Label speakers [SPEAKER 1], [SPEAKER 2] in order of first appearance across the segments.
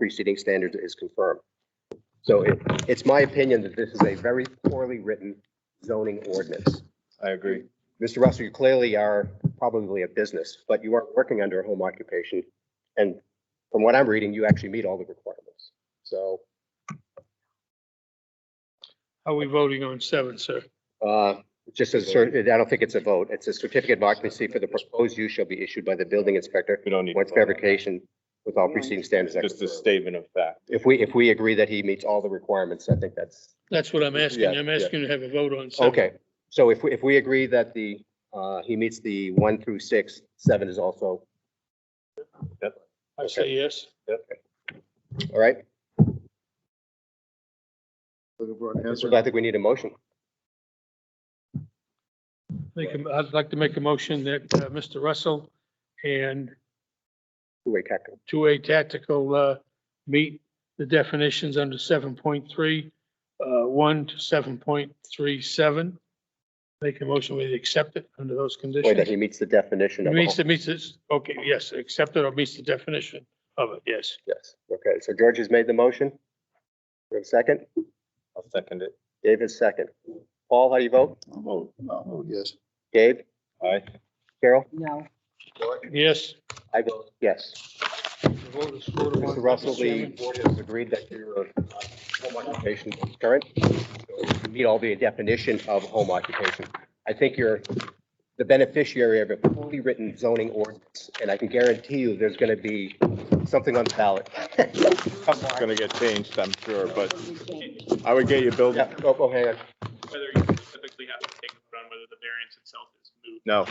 [SPEAKER 1] preceding standards is confirmed. So it, it's my opinion that this is a very poorly written zoning ordinance.
[SPEAKER 2] I agree.
[SPEAKER 1] Mr. Russell, you clearly are probably a business, but you aren't working under a home occupation. And from what I'm reading, you actually meet all the requirements. So,
[SPEAKER 3] Are we voting on seven, sir?
[SPEAKER 1] uh, it just as, cer- I don't think it's a vote. It's a certificate of occupancy for the proposed use shall be issued by the building inspector
[SPEAKER 2] We don't need. to
[SPEAKER 1] once
[SPEAKER 2] vote on that.
[SPEAKER 1] fabrication with all preceding standards. are
[SPEAKER 2] Just a
[SPEAKER 1] confirmed.
[SPEAKER 2] statement of fact.
[SPEAKER 1] If we, if we agree that he meets all the requirements, I think that's
[SPEAKER 3] That's what I'm asking.
[SPEAKER 2] Yeah,
[SPEAKER 3] I'm
[SPEAKER 2] yeah.
[SPEAKER 3] asking to have a vote on seven.
[SPEAKER 1] Okay, so if, we if we agree that the, uh, he meets the one through six, seven is also,
[SPEAKER 3] I say yes.
[SPEAKER 1] all right?
[SPEAKER 4] Looking for an answer.
[SPEAKER 1] So I think we need a motion.
[SPEAKER 3] Make, a- I'd like to make a motion that uh, Mr. Russell and
[SPEAKER 1] Two-way tactic.
[SPEAKER 3] two A tactical uh, meet the definitions under seven point three, uh, one to seven point three seven. Make a motion, we accept it under those
[SPEAKER 1] Or that he
[SPEAKER 3] conditions.
[SPEAKER 1] meets the definition of. a
[SPEAKER 3] Meets,
[SPEAKER 1] home.
[SPEAKER 3] it meets this, okay, yes, accept it or meets the definition of it, yes.
[SPEAKER 1] Yes, okay, so George has made the motion. We have a second,
[SPEAKER 2] I'll second it.
[SPEAKER 1] Dave is second. Paul, how do you vote?
[SPEAKER 4] I'll vote, I'll vote yes.
[SPEAKER 1] Dave,
[SPEAKER 2] Aye.
[SPEAKER 1] Carol?
[SPEAKER 5] No,
[SPEAKER 3] Yes.
[SPEAKER 1] I vote yes.
[SPEAKER 3] The vote is four to one,
[SPEAKER 1] Mr. Russell, the
[SPEAKER 3] Chairman.
[SPEAKER 1] board has agreed that your uh, home occupation is current. You Meet all the definition of home occupation. I think you're the beneficiary of a poorly written zoning ordinance, and I can guarantee you there's going to be something on the ballot.
[SPEAKER 2] It's gonna get changed, I'm sure, but
[SPEAKER 5] we can't.
[SPEAKER 2] I would get you building.
[SPEAKER 1] Yeah, oh, oh, hang on.
[SPEAKER 6] whether you specifically have to take a vote on whether the variance itself is moot.
[SPEAKER 2] No,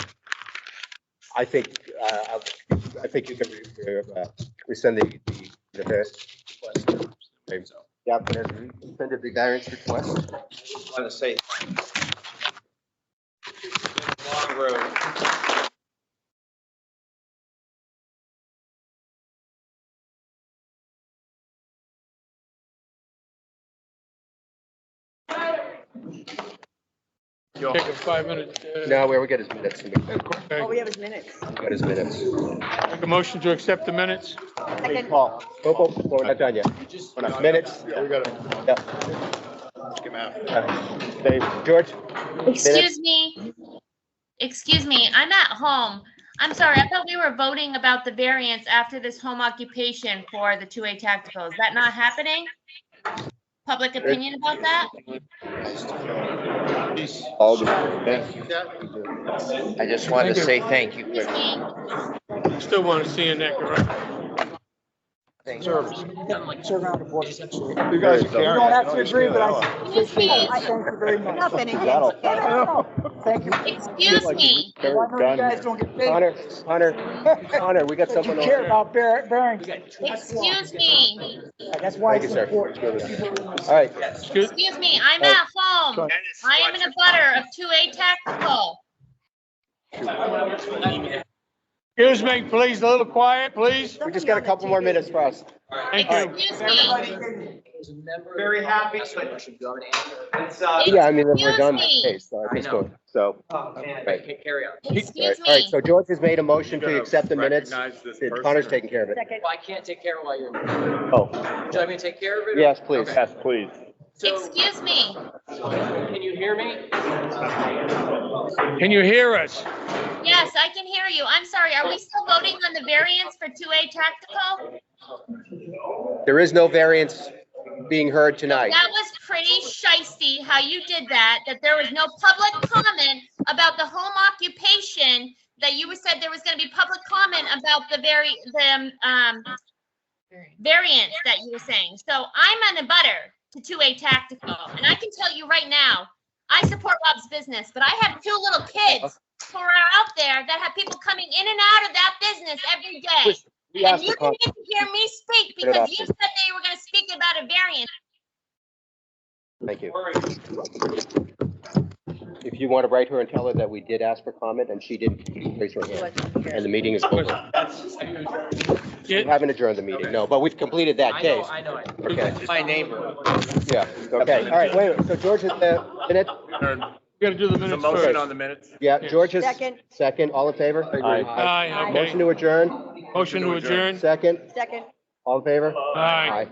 [SPEAKER 1] I think, uh, I think you can re- uh, rescind the, the- the variance request. The applicant has rescinded the variance request.
[SPEAKER 7] want to say. Long road.
[SPEAKER 3] Take a five minute. uh,
[SPEAKER 1] Now, where we get his minutes, we
[SPEAKER 3] okay.
[SPEAKER 5] Oh, we have his minutes.
[SPEAKER 1] get his minutes.
[SPEAKER 3] Make a motion to accept the minutes?
[SPEAKER 5] Second.
[SPEAKER 1] Paul, oh, oh, oh, we're not done yet.
[SPEAKER 7] You just.
[SPEAKER 1] We're not- Minutes.
[SPEAKER 2] we gotta,
[SPEAKER 1] Dave, George?
[SPEAKER 8] Excuse me. Excuse me, I'm at home. I'm sorry, I thought we were voting about the variance after this home occupation for the two A tactical. Is that not happening? Public opinion about that?
[SPEAKER 2] all the,
[SPEAKER 7] I just wanted to say thank you.
[SPEAKER 8] Excuse
[SPEAKER 7] for-
[SPEAKER 8] me.
[SPEAKER 3] Still want to see in that, correct?
[SPEAKER 7] thank you.
[SPEAKER 5] Turn around the board. You
[SPEAKER 2] you guys are carrying.
[SPEAKER 5] don't have
[SPEAKER 2] it.
[SPEAKER 5] to agree, but I.
[SPEAKER 8] Excuse me.
[SPEAKER 5] I thank you very much. Nothing against it. Thank you.
[SPEAKER 8] Excuse me.
[SPEAKER 5] Whatever you guys don't get paid,
[SPEAKER 1] Connor, Connor, Connor, we got
[SPEAKER 5] but you
[SPEAKER 1] someone
[SPEAKER 5] care
[SPEAKER 1] over.
[SPEAKER 5] about Bar- Barrington.
[SPEAKER 8] Excuse me.
[SPEAKER 5] That's why
[SPEAKER 1] Thank you,
[SPEAKER 5] it's
[SPEAKER 1] sir.
[SPEAKER 5] important.
[SPEAKER 1] All right,
[SPEAKER 3] Excuse,
[SPEAKER 8] Excuse me, I'm at home. I am in a butter of two A tactical.
[SPEAKER 3] excuse me, please, a little quiet, please.
[SPEAKER 1] we just got a couple more minutes for us.
[SPEAKER 3] Thank you.
[SPEAKER 8] Excuse me.
[SPEAKER 7] Very happy. It's, uh.
[SPEAKER 1] Yeah, I mean, we're
[SPEAKER 8] Excuse
[SPEAKER 1] done that
[SPEAKER 8] me.
[SPEAKER 1] case, so I
[SPEAKER 7] I
[SPEAKER 1] just
[SPEAKER 7] know.
[SPEAKER 1] go, so.
[SPEAKER 7] Oh, man.
[SPEAKER 1] Right.
[SPEAKER 7] Carry on.
[SPEAKER 1] All right,
[SPEAKER 8] Excuse
[SPEAKER 1] all right,
[SPEAKER 8] me.
[SPEAKER 1] so George has made a motion
[SPEAKER 2] You're
[SPEAKER 1] to
[SPEAKER 2] gonna
[SPEAKER 1] accept the minutes.
[SPEAKER 2] recognize this
[SPEAKER 1] Did-
[SPEAKER 2] person
[SPEAKER 1] Connor's
[SPEAKER 2] or-
[SPEAKER 1] taking care of it.
[SPEAKER 5] Second.
[SPEAKER 9] Well, I can't take care of it while you're. Do
[SPEAKER 1] Oh,
[SPEAKER 9] you want me to take care of it? or-
[SPEAKER 1] yes, please.
[SPEAKER 9] Okay.
[SPEAKER 2] Yes, please.
[SPEAKER 9] So,
[SPEAKER 8] Excuse me.
[SPEAKER 9] can you hear me?
[SPEAKER 3] Can you hear us?
[SPEAKER 8] Yes, I can hear you. I'm sorry. Are we still voting on the variance for two A tactical?
[SPEAKER 1] There is no variance being heard tonight.
[SPEAKER 8] That was pretty shisty how you did that, that there was no public comment about the home occupation, that you said there was gonna be public comment about the very, the, um, variance that you were saying. So I'm on a butter to two A tactical, and I can tell you right now, I support Rob's business, but I have two little kids who are out there that have people coming in and out of that business every day.
[SPEAKER 1] We
[SPEAKER 8] And
[SPEAKER 1] asked
[SPEAKER 8] you
[SPEAKER 1] the
[SPEAKER 8] didn't
[SPEAKER 1] con-
[SPEAKER 8] get to hear me speak
[SPEAKER 1] Put it
[SPEAKER 8] because
[SPEAKER 1] off.
[SPEAKER 8] you said they were gonna speak about a variance.
[SPEAKER 1] Thank you. If you want to write her and tell her that we did ask for comment and she didn't, raise her hand. And the meeting is over. We
[SPEAKER 3] Yeah,
[SPEAKER 1] haven't adjourned the meeting, no, but we've completed that
[SPEAKER 9] I know,
[SPEAKER 1] case.
[SPEAKER 9] I know. I-
[SPEAKER 1] Okay,
[SPEAKER 7] My neighbor.
[SPEAKER 1] yeah, okay, all right, wait, a minute. so George has the minute?
[SPEAKER 3] we gotta do the minutes first.
[SPEAKER 2] the minutes.
[SPEAKER 1] Yeah, George has
[SPEAKER 5] Second,
[SPEAKER 1] second, all in favor?
[SPEAKER 2] Aye.
[SPEAKER 3] Aye,
[SPEAKER 1] Motion to
[SPEAKER 3] okay.
[SPEAKER 1] adjourn,
[SPEAKER 3] Motion to adjourn.
[SPEAKER 1] second,
[SPEAKER 5] second.
[SPEAKER 10] All in favor?
[SPEAKER 1] Aye.